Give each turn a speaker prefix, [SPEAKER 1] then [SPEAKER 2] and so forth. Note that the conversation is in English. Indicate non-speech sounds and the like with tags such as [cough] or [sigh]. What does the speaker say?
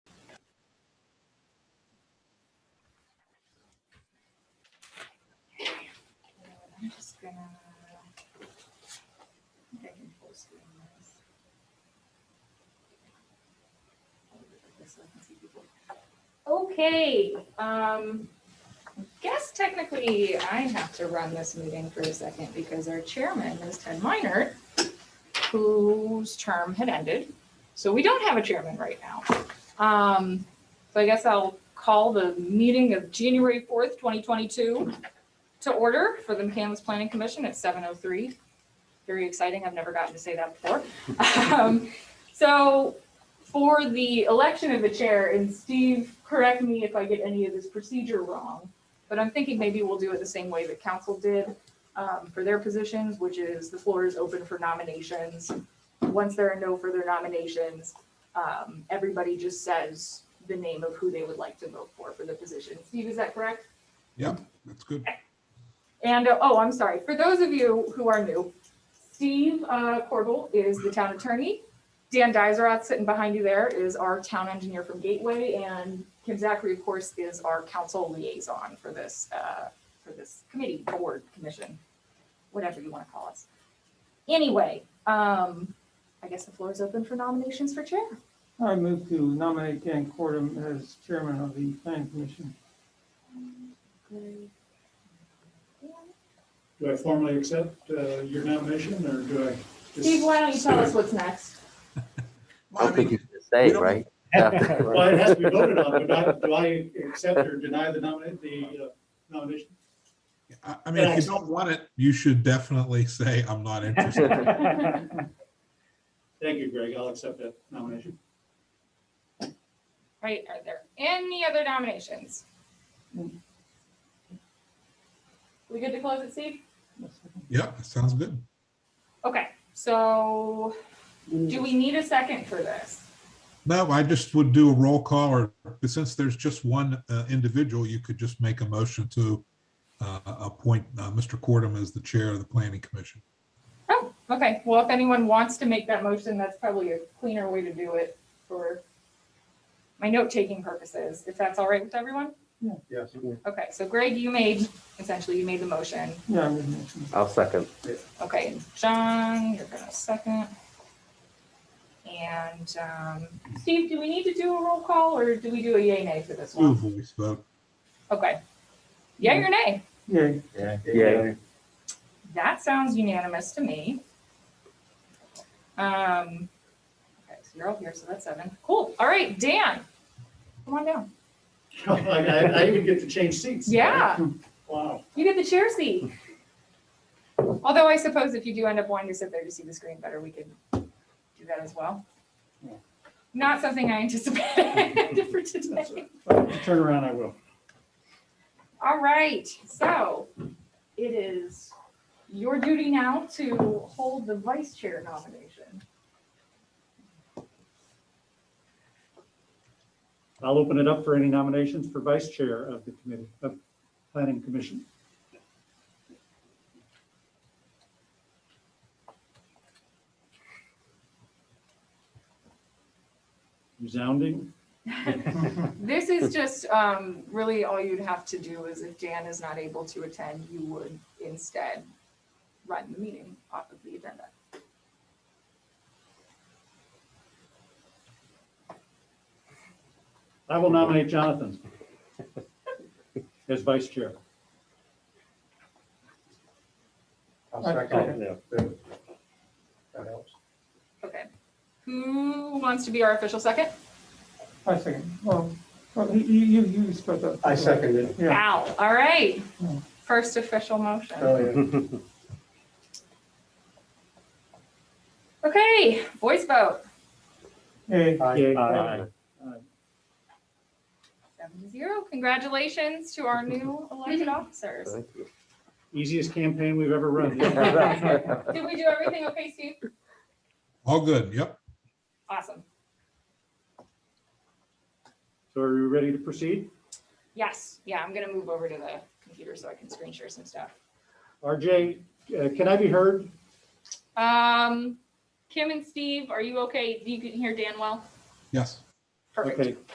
[SPEAKER 1] think I can post it on this. I'll do it like this so I can see people. Okay, um, guess technically I have to run this meeting for a second because our chairman is Ted Minor, whose term had ended. So we don't have a chairman right now. Um, so I guess I'll call the meeting of January fourth, twenty twenty-two to order for the McCandless Planning Commission at seven oh three. Very exciting. I've never gotten to say that before. [laughs] Um, So for the election of the chair, and Steve, correct me if I get any of this procedure wrong, but I'm thinking maybe we'll do it the same way that council did um, for their positions, which is the floor is open for nominations. Once there are no further nominations, um, everybody just says the name of who they would like to vote for for the position. Steve, is that correct?
[SPEAKER 2] That's good.
[SPEAKER 1] And, uh, oh, I'm sorry, for those of you who are new, Steve uh, Corbel is the town attorney. Dan Dizerat, sitting behind you there, is our town engineer from Gateway, and Kim Zachary, of course, is our council liaison for this, uh, for this committee, board, commission, whatever you want to call us. Anyway, um, I guess the floor is open for nominations for chair.
[SPEAKER 3] I move to nominate Dan Cordum as chairman of the planning commission.
[SPEAKER 4] Do I formally accept uh, your nomination or do I? just-
[SPEAKER 1] Steve, why don't you tell us what's next?
[SPEAKER 5] I don't think you should say,
[SPEAKER 2] don't-
[SPEAKER 5] right?
[SPEAKER 4] [laughs] Well, it has to be voted on, but I, do I accept or deny the nomination, the uh, nomination?
[SPEAKER 2] I, I mean, if you don't want it, you should definitely say, I'm not interested.
[SPEAKER 4] Thank you, Greg. I'll accept that nomination.
[SPEAKER 1] Right, are there any other nominations? We good to close it, Steve?
[SPEAKER 2] Yep, that sounds good.
[SPEAKER 1] Okay, so do we need a second for this?
[SPEAKER 2] No, I just would do a roll call or since there's just one uh, individual, you could just make a motion to uh, appoint uh, Mr. Cordum as the chair of the planning commission.
[SPEAKER 1] Oh, okay, well, if anyone wants to make that motion, that's probably a cleaner way to do it for my note-taking purposes, if that's all right with everyone?
[SPEAKER 4] Yes.
[SPEAKER 1] Okay, so Greg, you made, essentially, you made the motion.
[SPEAKER 3] Yeah, I would mention.
[SPEAKER 5] [laughs] I'll second.
[SPEAKER 1] Okay, and John, you're gonna second. And, um, Steve, do we need to do a roll call or do we do a yay nay for this
[SPEAKER 2] Ooh,
[SPEAKER 1] one?
[SPEAKER 2] voice vote.
[SPEAKER 1] Okay. Yay or nay?
[SPEAKER 3] Yeah,
[SPEAKER 5] Yeah.
[SPEAKER 1] That sounds unanimous to me. Um, okay, so you're all here, so that's seven. Cool. All right, Dan. Come on down.
[SPEAKER 4] [laughs] I, I I even get to change seats.
[SPEAKER 1] Yeah,
[SPEAKER 4] Wow.
[SPEAKER 1] you get the chair seat. Although I suppose if you do end up wanting to sit there to see the screen better, we could do that as well.
[SPEAKER 4] Yeah.
[SPEAKER 1] Not something I anticipated [laughs] for today.
[SPEAKER 4] That's a- if you Turn around, I will.
[SPEAKER 1] All right, so it is your duty now to hold the vice chair nomination.
[SPEAKER 4] I'll open it up for any nominations for vice chair of the committee, of planning commission. Resounding.
[SPEAKER 1] This
[SPEAKER 4] [laughs]
[SPEAKER 1] is just, um, really all you'd have to do is if Dan is not able to attend, you would instead run the meeting off of the agenda.
[SPEAKER 4] I will nominate Jonathan as vice chair.
[SPEAKER 6] I'll
[SPEAKER 3] Okay.
[SPEAKER 6] second that. That helps.
[SPEAKER 1] Okay. Who wants to be our official second?
[SPEAKER 3] I second. Well, well, you, you, you you split that.
[SPEAKER 6] I second it.
[SPEAKER 3] Yeah,
[SPEAKER 1] Al, all right.
[SPEAKER 3] Hmm.
[SPEAKER 1] First official motion.
[SPEAKER 6] Oh, yeah.
[SPEAKER 1] Okay, voice vote,
[SPEAKER 3] yeah,
[SPEAKER 6] Aye.
[SPEAKER 4] Yay.
[SPEAKER 6] Aye.
[SPEAKER 1] seven to zero. Congratulations to our new elected officers.
[SPEAKER 5] Thank
[SPEAKER 4] [laughs]
[SPEAKER 5] you.
[SPEAKER 4] Easiest campaign we've ever run.
[SPEAKER 1] Did we do everything okay, Steve?
[SPEAKER 2] All good, yep.
[SPEAKER 1] Awesome.
[SPEAKER 4] So are you ready to proceed?
[SPEAKER 1] Yes, yeah, I'm gonna move over to the computer so I can screen share some stuff.
[SPEAKER 4] RJ, uh, can I be heard?
[SPEAKER 1] Um, Kim and Steve, are you okay? You can hear Dan well?
[SPEAKER 2] Yes.
[SPEAKER 1] Perfect.
[SPEAKER 4] Okay,